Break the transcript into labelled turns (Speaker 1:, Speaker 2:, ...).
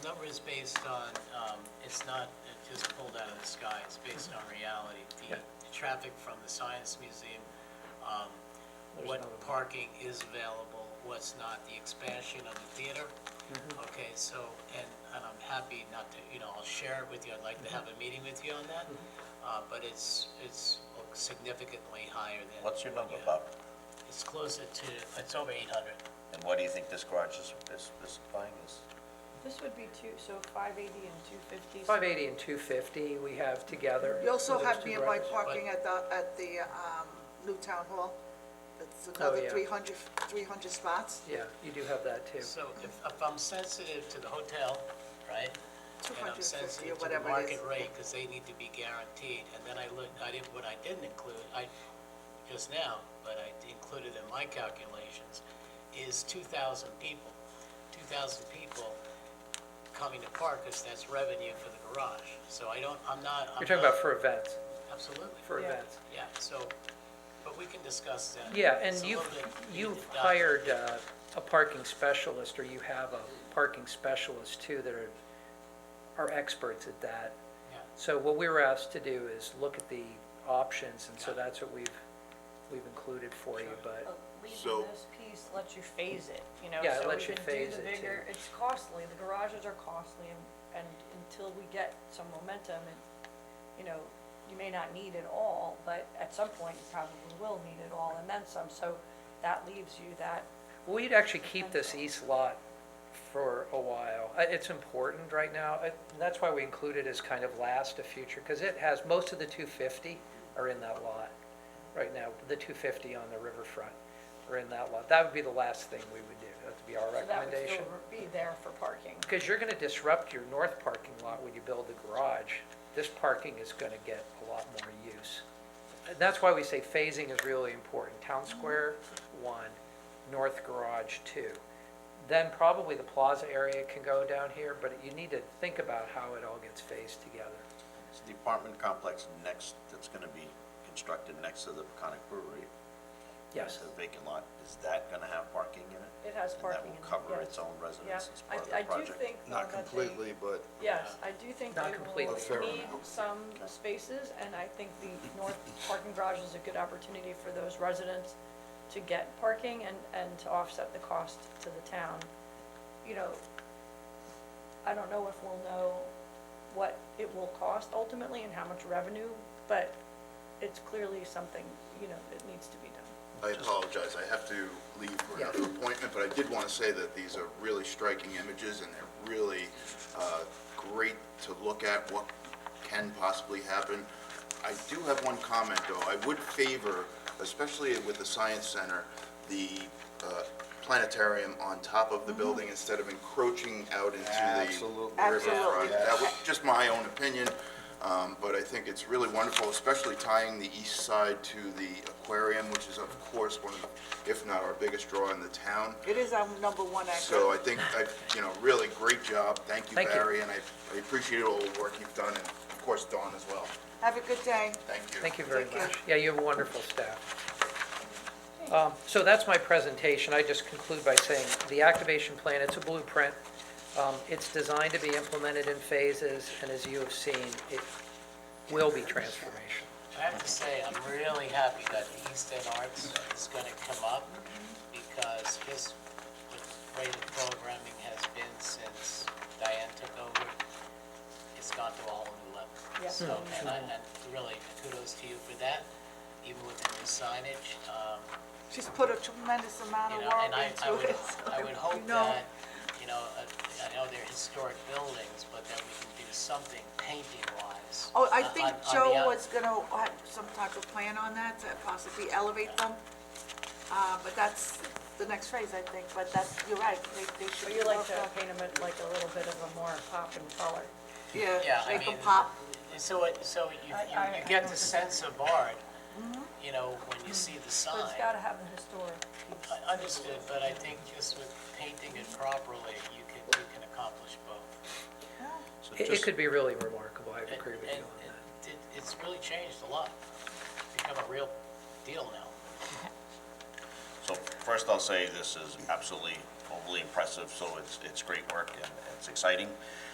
Speaker 1: number is based on, um, it's not uh, just pulled out of the sky, it's based on reality. The traffic from the Science Museum, um, what parking is available, what's not, the expansion of the theater.
Speaker 2: Mm-hmm.
Speaker 1: Okay, so, and, and I'm happy not to, you know, I'll share it with you, I'd like
Speaker 2: Mm-hmm.
Speaker 1: to have a meeting with you on that, uh, but it's, it's significantly higher than.
Speaker 2: What's your number,
Speaker 1: yeah.
Speaker 2: Bob?
Speaker 1: It's closer to, it's over 800.
Speaker 2: And what do you think this garage is, is, is buying is?
Speaker 3: This would be two, so 580 and 250.
Speaker 4: 580 and 250 we have together.
Speaker 5: You also
Speaker 4: for
Speaker 5: have
Speaker 4: those two
Speaker 5: nearby
Speaker 4: brothers.
Speaker 5: parking at the, at the um, new town hall. It's
Speaker 1: Oh,
Speaker 4: yeah.
Speaker 5: another 300, 300 spots,
Speaker 4: Yeah, you do have that too.
Speaker 1: So if, if I'm sensitive to the hotel, right? And I'm
Speaker 5: 250 or
Speaker 1: sensitive to the
Speaker 5: whatever it
Speaker 1: market
Speaker 5: is.
Speaker 1: rate, because they need to be guaranteed, and then I looked, I didn't, what I didn't include, I, just now, but I included in my calculations, is two thousand people. Two thousand people coming to park, because that's revenue for the garage, so I don't, I'm not. I'm
Speaker 4: You're talking
Speaker 1: not-
Speaker 4: about for events,
Speaker 1: Absolutely.
Speaker 4: for
Speaker 3: Yeah.
Speaker 4: events.
Speaker 1: Yeah, so, but we can discuss that.
Speaker 4: Yeah, and
Speaker 1: It's a
Speaker 4: you've,
Speaker 1: little bit-
Speaker 4: you've
Speaker 1: Yeah.
Speaker 4: hired uh, a parking specialist, or you have a parking specialist too that are, are experts at that.
Speaker 1: Yeah.
Speaker 4: So what we were asked to do is look at the options, and so that's what we've, we've included for you, but,
Speaker 6: So-
Speaker 3: Leaving this piece lets you phase it, you know?
Speaker 4: Yeah, it
Speaker 3: so
Speaker 4: lets
Speaker 3: we
Speaker 4: you
Speaker 3: can do
Speaker 4: phase
Speaker 3: the
Speaker 4: it, too.
Speaker 3: bigger- It's costly, the garages are costly, and, and until we get some momentum, and, you know, you may not need it all, but at some point, you probably will need it all, and then some, so that leaves you that,
Speaker 4: well, you'd actually keep this east lot for a while. Uh, It's important right now, Uh, that's why we include it as kind of last to future, because it has, most of the 250 are in that lot right now, the 250 on the riverfront are in that lot. That would be the last thing we would do, that would be our
Speaker 3: so that would
Speaker 4: recommendation.
Speaker 3: still be there for parking.
Speaker 4: Because you're going to disrupt your north parking lot when you build the garage. This parking is going to get a lot more use. And that's why we say phasing is really important. Town Square, one, north garage, two. Then probably the plaza area can go down here, but you need to think about how it all gets phased together.
Speaker 2: It's the apartment complex next, that's gonna be constructed next to the Peconic Brewery.
Speaker 4: Yes.
Speaker 2: The vacant lot, is that gonna have parking in it?
Speaker 3: It has parking
Speaker 2: And
Speaker 3: in it,
Speaker 2: that will cover
Speaker 3: yes.
Speaker 2: its own residents as
Speaker 3: I-
Speaker 2: part of the
Speaker 3: I do
Speaker 2: project?
Speaker 3: think-
Speaker 6: Not
Speaker 3: Well, that they-
Speaker 6: completely, but
Speaker 3: Yes, I do think
Speaker 4: Not
Speaker 3: they
Speaker 4: completely. A
Speaker 6: fair
Speaker 3: will need
Speaker 6: amount.
Speaker 3: some spaces, and I think the north parking garage is a good opportunity for those residents to get parking and, and to offset the cost to the town. You know, I don't know if we'll know what it will cost ultimately and how much revenue, but it's clearly something, you know, that needs to be done.
Speaker 6: I apologize, I have to leave for another appointment, but I did want to say that these are really striking images, and they're really uh, great to look at, what can possibly happen. I do have one comment, though. I would favor, especially with the Science Center, the uh, planetarium on top of the building instead of encroaching out into the
Speaker 7: Absolutely.
Speaker 6: riverfront.
Speaker 5: Absolutely.
Speaker 6: That was just my own opinion, um, but I think it's really wonderful, especially tying the east side to the aquarium, which is of course one of, the- if not our biggest draw in the town.
Speaker 5: It is our number one
Speaker 6: So I
Speaker 5: actor.
Speaker 6: think, I- you know, really great job. Thank you,
Speaker 4: Thank you.
Speaker 6: Barry, and I I appreciate all the work you've done, and of course Dawn as well.
Speaker 5: Have a good day.
Speaker 6: Thank you.
Speaker 4: Thank you very
Speaker 5: Thank you.
Speaker 4: much. Yeah, you have wonderful staff. Um, So that's my presentation. I just conclude by saying, the activation plan, it's a blueprint. Um, It's designed to be implemented in phases, and as you have seen, it will be transformational.
Speaker 1: I have to say, I'm really happy that the East End Arts is going to come up because this rate of programming has been since Diane took over. It's gone to a whole new level.
Speaker 3: Yep.
Speaker 1: So, and I, and really kudos to you for that, even with the new signage. um,
Speaker 5: She's put a tremendous amount
Speaker 1: you
Speaker 5: of
Speaker 1: know,
Speaker 5: work
Speaker 1: and I, I
Speaker 5: into
Speaker 1: would,
Speaker 5: it. so
Speaker 1: I would
Speaker 5: you
Speaker 1: hope
Speaker 5: know.
Speaker 1: that, you know, uh, I know they're historic buildings, but that we can do something painting-wise.
Speaker 5: Oh, I
Speaker 1: on-
Speaker 5: think
Speaker 1: on- on the
Speaker 5: Joe
Speaker 1: out-
Speaker 5: was gonna have some type of plan on that to possibly elevate them. Uh, but that's the next phase, I think, but that's, you're right, they, they should.
Speaker 3: But you like
Speaker 5: work
Speaker 3: to
Speaker 5: on-
Speaker 3: paint them like a little bit of a more pop and color.
Speaker 1: Yeah,
Speaker 5: Yeah,
Speaker 1: I
Speaker 5: make them
Speaker 1: mean,
Speaker 5: pop.
Speaker 1: So, it- so you,
Speaker 3: I-
Speaker 1: you-
Speaker 3: I-
Speaker 1: you get the sense of art, you know, when you see the
Speaker 3: But
Speaker 1: sign.
Speaker 3: Mm-hmm. it's gotta have the historic piece.
Speaker 1: I Understood, but I think just with painting it properly, you can, you can accomplish both.
Speaker 2: So
Speaker 4: It- It
Speaker 2: just-
Speaker 4: could be really remarkable, I agree with you
Speaker 1: And-
Speaker 4: on
Speaker 1: and
Speaker 4: that.
Speaker 1: it- It's really changed a lot. It's become a real deal now.
Speaker 2: So first I'll say this is absolutely a equally impressive, so it's, it's great work and it's exciting.